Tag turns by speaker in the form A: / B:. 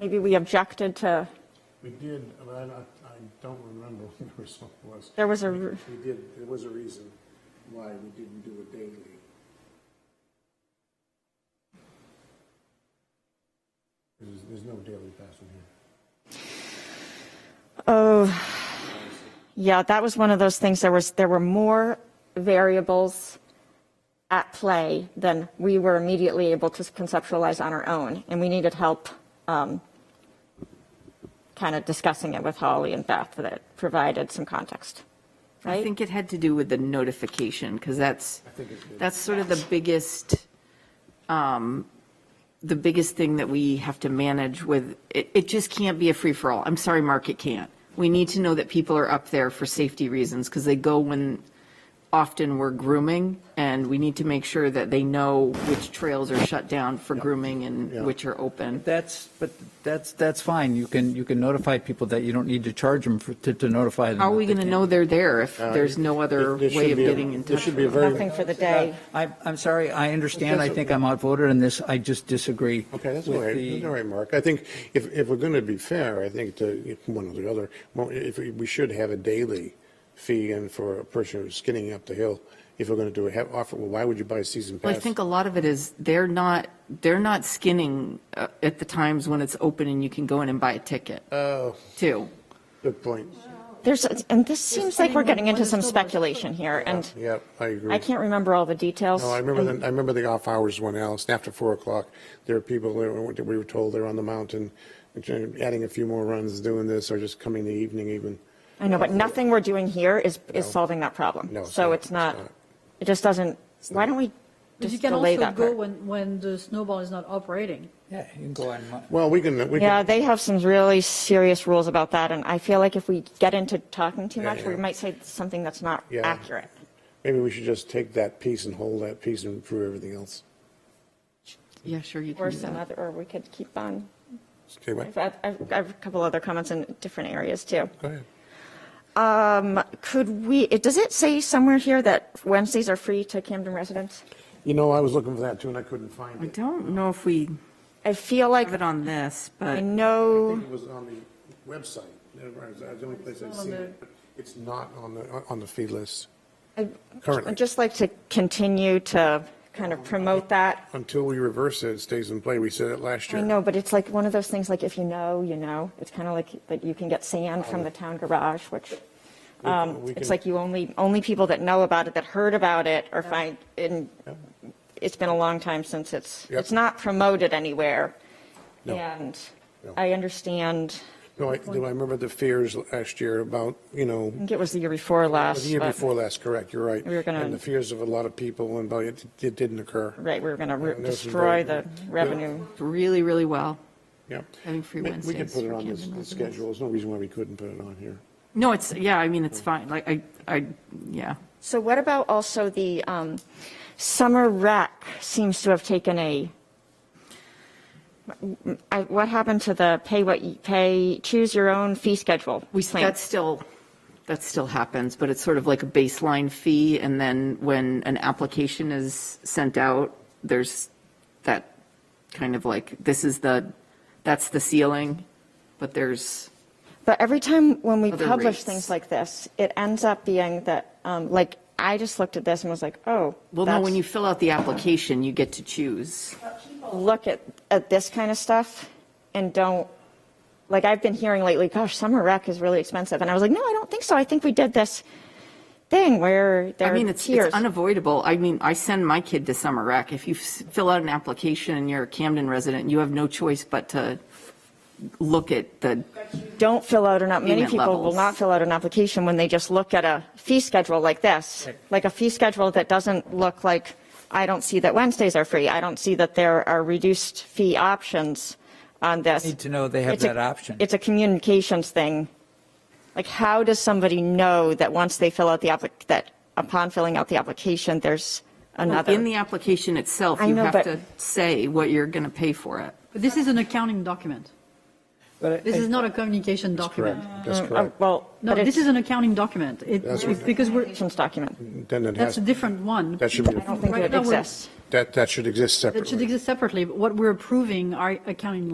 A: Maybe we objected to,
B: We did, but I, I I don't remember what the result was.
A: there was a, r-
B: We did, there was a reason why we didn't do it daily. There's, there's no daily pass in here.
A: oh, yeah, that was one of those things, there was, there were more variables at play than we were immediately able to conceptualize on our own, and we needed help um, kind of discussing it with Holly and Beth that provided some context,
C: I
A: right?
C: think it had to do with the notification, because that's,
B: I think it did.
C: that's sort of the biggest, um, the biggest thing that we have to manage with, it, it just can't be a free-for-all. I'm sorry, Mark, it can't. We need to know that people are up there for safety reasons, because they go when often we're grooming, and we need to make sure that they know which trails are shut down for grooming
B: Yeah.
C: and which are open.
D: That's, but that's, that's fine. You can, you can notify people that you don't need to charge them for, to, to notify them.
C: How are
D: that
C: we
D: they
C: going to
D: can't.
C: know they're there if there's no other
B: Uh, There- there should
C: way of
B: be a-
C: getting in touch?
B: There should be a
C: with them?
B: very,
A: Nothing for the day.
D: I, I'm sorry, I understand. I think I'm outvoted on this. I just disagree.
B: okay, that's all
D: with
B: right,
D: the-
B: That's all right, Mark. I think if, if we're going to be fair, I think to one or the other, well, if, we we should have a daily fee and for a person who's skinning up the hill, if we're going to do a, have, offer, well, why would you buy a season
C: Well,
B: pass?
C: I think a lot of it is they're not, they're not skinning uh, at the times when it's open and you can go in and buy a ticket,
B: Oh,
C: too.
B: good point.
A: There's, and this seems like we're getting into some
C: There's only one-
A: speculation here, and
B: Yep, I agree.
A: I can't remember all the details.
B: No, I remember the, I remember the off-hours one, Alice, after four o'clock, there are people that were, that we were told they're on the mountain, which are adding a few more runs, doing this, or just coming the evening even.
A: I know, but nothing we're doing here is, is solving that problem.
B: No, it's
A: So
B: not.
A: it's not,
B: It's not.
A: it just doesn't, why don't we
E: But you
A: just
E: can
A: delay
E: also
A: that
E: go
A: part?
E: when, when the snowball is not operating.
D: Yeah, you can go on. Mon-
B: Well, we can, we
A: Yeah,
B: can,
A: they have some really serious rules about that, and I feel like if we get into talking too
B: Yeah,
A: much, we
B: yeah.
A: might say something that's not
B: Yeah.
A: accurate.
B: maybe we should just take that piece and hold that piece and prove everything else.
C: Yeah, sure, you can
A: Or
C: do
A: some
C: that.
A: other, or we could keep on.
B: Okay, what?
A: I've, I've I've a couple other comments in different areas too. Um,
B: Go ahead.
A: Could we, it- does it say somewhere here that Wednesdays are free to Camden residents?
B: You know, I was looking for that too, and I couldn't find
C: I
B: it.
C: don't know if we
A: I feel like,
C: have it on this,
A: I
C: but
B: I
A: know,
B: think it was on the website, that was the only place I've
E: It's not on
B: seen
E: the-
B: it, but it's not on the, on the feed list currently.
A: I'd just like to continue to kind of promote that.
B: Until we reverse it, it stays in play, we said it last
A: I
B: year.
A: know, but it's like one of those things, like if you know, you know. It's kind of like that you can get sand from the town garage, which
B: We-
A: um,
B: we
A: it's
B: can-
A: like you only, only people that know about it, that heard about it or find, and it's been a long time since it's,
B: Yep.
A: it's not promoted anywhere.
B: No.
A: And
B: No.
A: I understand,
B: No, I, do I remember the fears last year about, you know,
A: I think it was the year before last.
B: The year
A: but-
B: before last, correct, you're right.
A: We were gonna-
B: And the fears of a lot of people, and but it, it didn't occur.
A: Right, we were going to
B: this is
A: destroy
B: very-
A: the revenue.
C: really, really well.
B: Yep.
C: Having free
B: We- We could
C: Wednesdays
B: put it
C: for
B: on this,
C: Camden
B: the
C: residents.
B: schedule, there's no reason why we couldn't put it on here.
C: No, it's, yeah, I mean, it's fine, like, I, I, yeah.
A: So what about also the um, summer rec seems to have taken a, I- what happened to the pay what you pay, choose your own fee schedule?
C: We,
A: plan?
C: that still, that still happens, but it's sort of like a baseline fee, and then when an application is sent out, there's that kind of like, this is the, that's the ceiling, but there's,
A: But every time when we
C: Other
A: publish
C: rates.
A: things like this, it ends up being that, um, like, I just looked at this and was like, oh.
C: well, no, when you
A: that's-
C: fill out the application, you get to choose.
A: Look at, at this kind of stuff and don't, like, I've been hearing lately, gosh, summer rec is really expensive. And I was like, no, I don't think so. I think we did this thing where
C: I
A: there
C: mean,
A: are
C: it's, it's
A: tiers.
C: unavoidable. I mean, I send my kid to summer rec. If you s- fill out an application and you're a Camden resident, you have no choice but to look at the,
A: don't fill out an, app- many
C: Payment
A: people will
C: levels.
A: not fill out an application when they just look at a fee schedule like this, like a fee schedule that doesn't look like, I don't see that Wednesdays are free, I don't see that there are reduced fee options on this.
D: Need to know they have
A: It's a-
D: that option.
A: It's a communications thing. Like, how does somebody know that once they fill out the applic, that upon filling out the application, there's another?
C: in the application itself,
A: I
C: you
A: know,
C: have
A: but-
C: to say what you're going to pay for it.
E: But this is an accounting document.
D: But
E: This
D: I-
E: is not a communication
B: That's
E: document.
B: correct, that's
A: Uh,
B: correct.
A: Well,
E: No,
A: but
E: this
A: it's
E: is an accounting document. It,
B: That's
E: it's
B: what-
E: because we're,
A: communications document.
B: Then it
E: that's
B: has,
E: a different one.
B: that should be,
A: I don't think
E: Right
A: it
E: now, we're-
A: exists.
B: that, that should exist
E: That should
B: separately.
E: exist separately, but what we're approving are accounting